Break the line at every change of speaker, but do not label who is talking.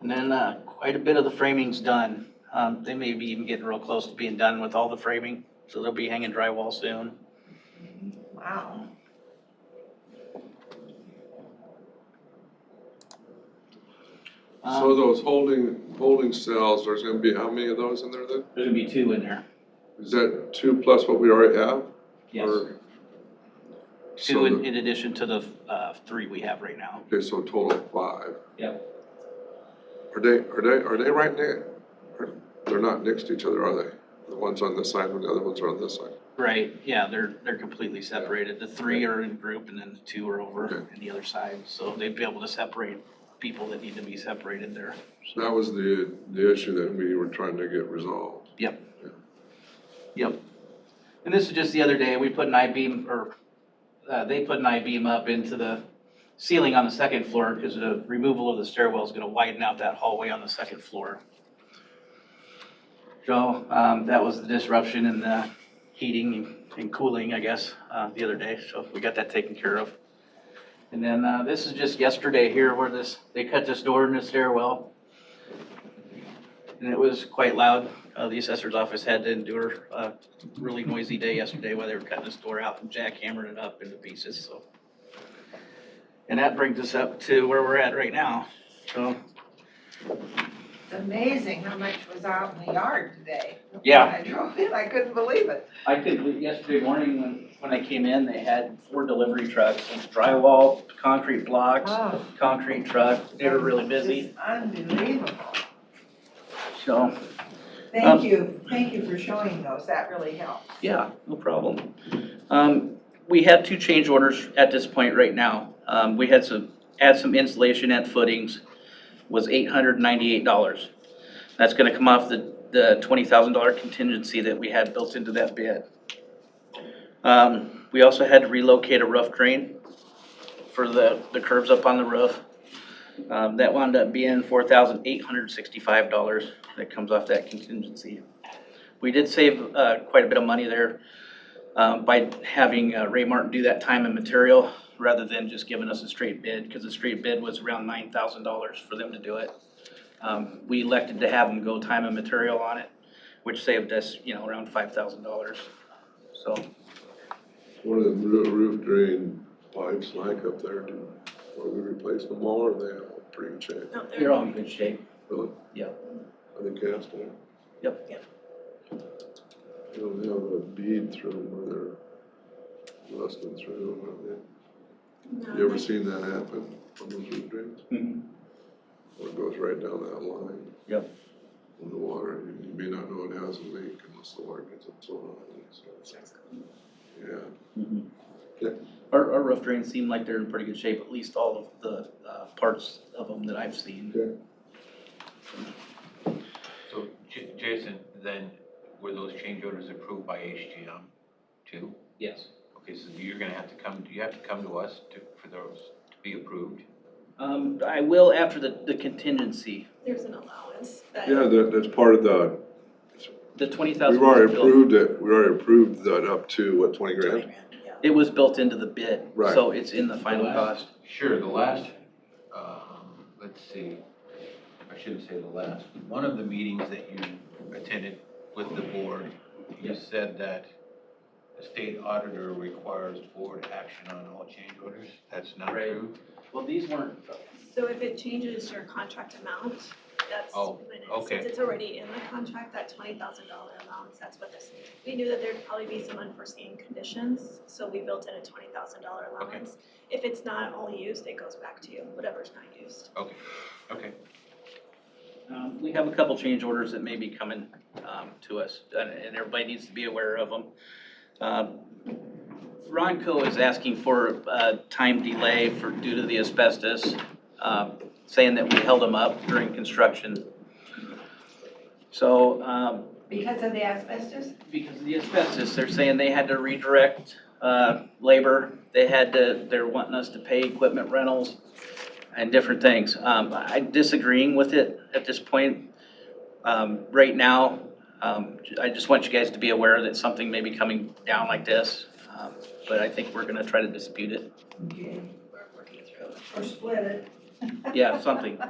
And then uh, quite a bit of the framing's done. Um, They may be even getting real close to being done with all the framing, so they'll be hanging drywall soon.
Wow.
Um,
So those holding, holding cells, there's gonna be, how many of those in there then?
There's gonna be two in there.
Is that two plus what we already have?
Yes.
Or- So
Two in
the-
in addition to the uh, three we have right now.
Okay, so a total of five.
Yep.
Are they, are they, are they right near, are- they're not next to each other, are they? The ones on this side and the other ones are on this side.
Right, yeah, they're, they're completely separated. The three are in group and then the two are over
Okay.
on the other side. So they'd be able to separate people that need to be separated there.
That was the, the issue that we were trying to get resolved.
Yep. Yep. And this is just the other day, we put an I-beam, or uh, they put an I-beam up into the ceiling on the second floor because the removal of the stairwell is going to widen out that hallway on the second floor. So um, that was the disruption in the heating and cooling, I guess, uh, the other day. So we got that taken care of. And then uh, this is just yesterday here where this, they cut this door in the stairwell. And it was quite loud. Uh, the assessor's office had to endure a really noisy day yesterday while they were cutting this door out and jackhammering it up into pieces, so. And that brings us up to where we're at right now. So,
It's amazing how much was out in the yard today.
Yeah.
When I drove in, I couldn't believe it.
I could, yesterday morning when, when I came in, they had four delivery trucks, drywall, concrete blocks,
Oh,
concrete truck. They were really busy,
It's unbelievable.
so. Um,
Thank you, thank you for showing those, that really helps.
Yeah, no problem. Um, we have two change orders at this point right now. Um, we had some, add some insulation and footings was eight hundred ninety-eight dollars. That's gonna come off the, the twenty thousand dollar contingency that we had built into that bid. Um, we also had to relocate a roof drain for the, the curves up on the roof. Um, that wound up being four thousand eight hundred sixty-five dollars that comes off that contingency. We did save uh, quite a bit of money there um, by having uh, Ray Martin do that time and material rather than just giving us a straight bid, because the straight bid was around nine thousand dollars for them to do it. Um, We elected to have them go time and material on it, which saved us, you know, around five thousand dollars. So,
One of the roo- roof drain pipes like up there, do, will we replace them all or are they all pretty good shape?
they're all in good shape.
Really?
Yeah.
Are they cast iron?
Yep.
Yep.
You know, they have a bead through them where they're rusting through them,
No,
have you? You ever
like-
seen that happen on those roof drains?
Mm-hmm.
Where it goes right down that line?
Yep.
In the water, and you may not know it has a leak unless the water gets up so high, so, yeah.
Mm-hmm. Our, our roof drains seem like they're in pretty good shape, at least all of the uh, parts of them that I've seen.
So, J- Jason, then, were those change orders approved by HGM too?
Yes.
Okay, so you're gonna have to come, do you have to come to us to, for those to be approved?
Um, I will after the, the contingency,
There's an allowance that.
Yeah, that, that's part of the,
the twenty
we've
thousand.
already approved it, we already approved that up to, what, twenty grand?
It was built into the bid,
Right.
so it's in the final cost.
Sure, the last, um, let's see, I shouldn't say the last, one of the meetings that you attended with the board, you said that the state auditor requires board action on all change orders, that's not
Right.
true?
Well, these weren't,
So if it changes your contract amount, that's
Oh,
when it's,
okay.
since it's already in the contract, that twenty thousand dollar allowance, that's what this. We knew that there'd probably be some unforeseen conditions, so we built in a twenty thousand dollar
Okay.
allowance. If it's not all used, it goes back to you, whatever's not used.
Okay, okay.
um, we have a couple change orders that may be coming, um, to us, and, and everybody needs to be aware of them. Um, Ronco is asking for a time delay for, due to the asbestos, um, saying that we held them up during construction. So, um,
Because of the asbestos?
because of the asbestos, they're saying they had to redirect uh, labor, they had to, they're wanting us to pay equipment rentals and different things. Um, I disagreeing with it at this point. Um, Right now, um, I just want you guys to be aware that something may be coming down like this, um, but I think we're gonna try to dispute it.
Okay.
We're working through it.
Or split it?
Yeah, something.